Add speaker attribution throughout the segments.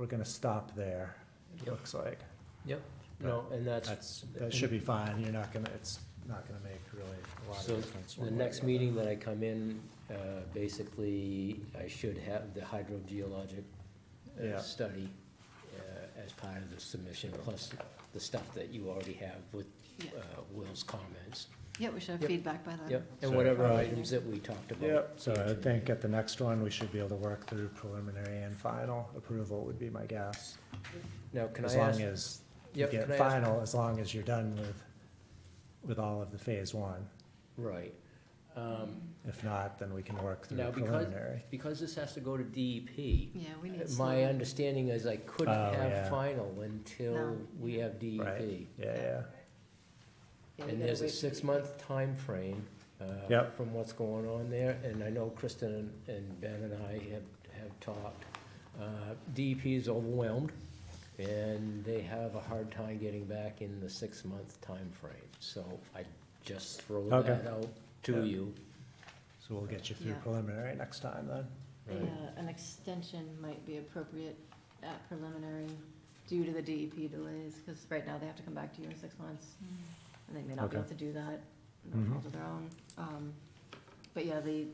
Speaker 1: We're gonna stop there, it
Speaker 2: Yep.
Speaker 1: looks like.
Speaker 2: No, and that's,
Speaker 1: That's, that should be fine, you're not gonna, it's not gonna make really a lot
Speaker 2: So,
Speaker 1: of difference.
Speaker 2: the
Speaker 1: one way or
Speaker 2: next
Speaker 1: other.
Speaker 2: meeting that I come in, uh, basically, I should have the hydrogeologic uh,
Speaker 1: Yeah.
Speaker 2: study uh, as part of the submission, plus the stuff that you already have with
Speaker 3: Yeah.
Speaker 2: uh, Will's comments.
Speaker 3: Yeah, we should have
Speaker 2: Yep.
Speaker 3: feedback by then.
Speaker 2: Yep, and
Speaker 1: So,
Speaker 2: whatever
Speaker 1: uh,
Speaker 2: items that we talked about.
Speaker 1: Yep, so I think uh, at the next one, we should be able to work through preliminary and final approval would be my guess.
Speaker 2: Now, can I
Speaker 1: As
Speaker 2: ask?
Speaker 1: long as you
Speaker 2: Yep,
Speaker 1: get
Speaker 2: can I ask-
Speaker 1: final, as long as you're done with, with all of the phase one.
Speaker 2: Right. Um,
Speaker 1: If not, then we can work through
Speaker 2: Now, because-
Speaker 1: preliminary.
Speaker 2: Because this has to go to DEP,
Speaker 3: Yeah, we need.
Speaker 2: Uh, my
Speaker 3: some-
Speaker 2: understanding is I couldn't
Speaker 1: Oh,
Speaker 2: have
Speaker 1: yeah.
Speaker 2: final until
Speaker 3: No.
Speaker 2: we have E DEP.
Speaker 1: Right. Yeah, yeah,
Speaker 3: yeah, we
Speaker 2: And
Speaker 3: gotta
Speaker 2: there's a
Speaker 3: wait for
Speaker 2: six-month timeframe uh,
Speaker 1: Yep.
Speaker 2: from what's going on there, and I know Kristen and- and Ben and I have, have talked. Uh, DEP is overwhelmed, and they have a hard time getting back in the six-month timeframe. So I just throw
Speaker 1: Okay.
Speaker 2: that out to
Speaker 1: Yeah.
Speaker 2: you.
Speaker 1: so we'll get you through
Speaker 3: Yeah.
Speaker 1: preliminary next time then.
Speaker 3: the-
Speaker 2: Right.
Speaker 3: yeah, An extension might be appropriate at preliminary due to the DEP delays, because right now they have to come back to you in six months. And they may not be able
Speaker 1: Okay.
Speaker 3: to do that, no
Speaker 2: Mm-hmm.
Speaker 3: fault of their own. Um, But yeah, the,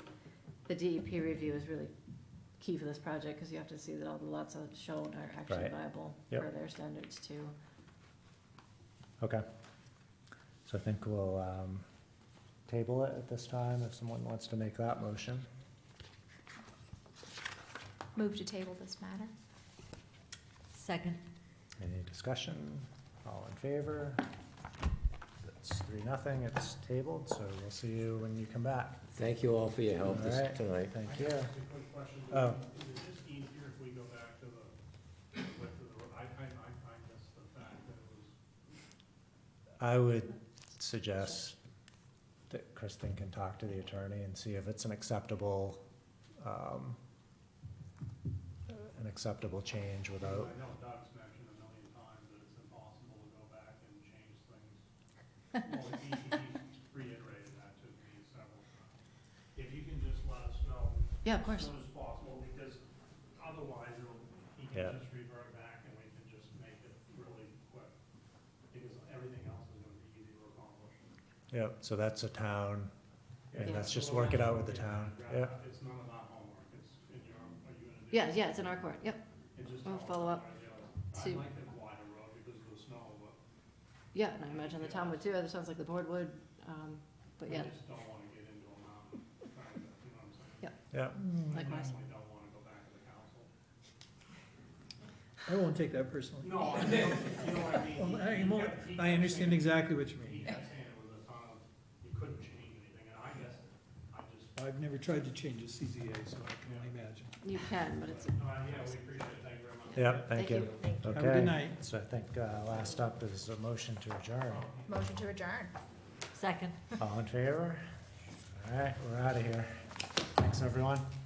Speaker 3: the DEP review is really key for this project, because you have to see that all the lots that are shown are actually
Speaker 1: Right.
Speaker 3: viable
Speaker 1: Yep.
Speaker 3: for their standards too.
Speaker 1: Okay. So I think we'll, um, table it at this time if someone wants to make that motion.
Speaker 4: Move to table this matter?
Speaker 3: Second.
Speaker 1: Any discussion? All in favor? That's three, nothing. It's tabled, so we'll see you when you come back.
Speaker 2: Thank you all for your help this-
Speaker 1: All right.
Speaker 2: tonight.
Speaker 1: Thank you.
Speaker 5: A quick question.
Speaker 1: Oh.
Speaker 5: Is it just easier if we go back to the, what the, I find, I find this the fact that it was
Speaker 1: I would suggest that Kristen can talk to the attorney and see if it's an acceptable, um, an acceptable change without,
Speaker 5: I know Doug's mentioned a million times that it's impossible to go back and change things. Well, he, he reiterated that to me several times. If you can just let us know.
Speaker 3: Yeah, of course.
Speaker 5: As soon as possible, because otherwise it'll, he
Speaker 1: Yeah.
Speaker 5: can just revert back and we can just make it really quick. Because everything else is gonna be easy to accomplish.
Speaker 1: yeah, so that's a town, and
Speaker 3: Yeah.
Speaker 1: let's just work it out with the town, yeah.
Speaker 5: It's none of our homework, it's in your, are you gonna do?
Speaker 3: Yeah, yeah, it's in our court, yep,
Speaker 5: It just
Speaker 3: We'll
Speaker 5: all
Speaker 3: follow up
Speaker 5: comes together.
Speaker 3: to-
Speaker 5: I like the wider road because of the snow, but
Speaker 3: yeah, and I imagine the town would too, it sounds like the board would, um, but yeah,
Speaker 5: I just don't wanna get into a mountain, kind of, you know what I'm saying?
Speaker 1: Yeah,
Speaker 5: I
Speaker 3: likewise.
Speaker 5: definitely don't wanna go back to the council.
Speaker 6: I won't take that personally.
Speaker 5: No, I, you know what I mean?
Speaker 6: Well, I-
Speaker 5: He- he
Speaker 6: well,
Speaker 5: kept- he
Speaker 6: I
Speaker 5: kept
Speaker 6: understand
Speaker 5: saying-
Speaker 6: exactly what you mean.
Speaker 5: He kept saying it was a ton of, you couldn't change anything, and I guess, I just,
Speaker 6: I've never tried to change a CZA, so I can only imagine.
Speaker 3: You can, but it's,
Speaker 5: no, I- yeah, we appreciate it, thank you very much.
Speaker 1: yeah, thank
Speaker 3: Thank
Speaker 1: you.
Speaker 6: Have a good
Speaker 1: Okay,
Speaker 6: night.
Speaker 1: so I think, uh, last up is a motion to adjourn.
Speaker 4: Motion to adjourn.
Speaker 3: second.
Speaker 1: All in favor? All right, we're out of here. Thanks, everyone.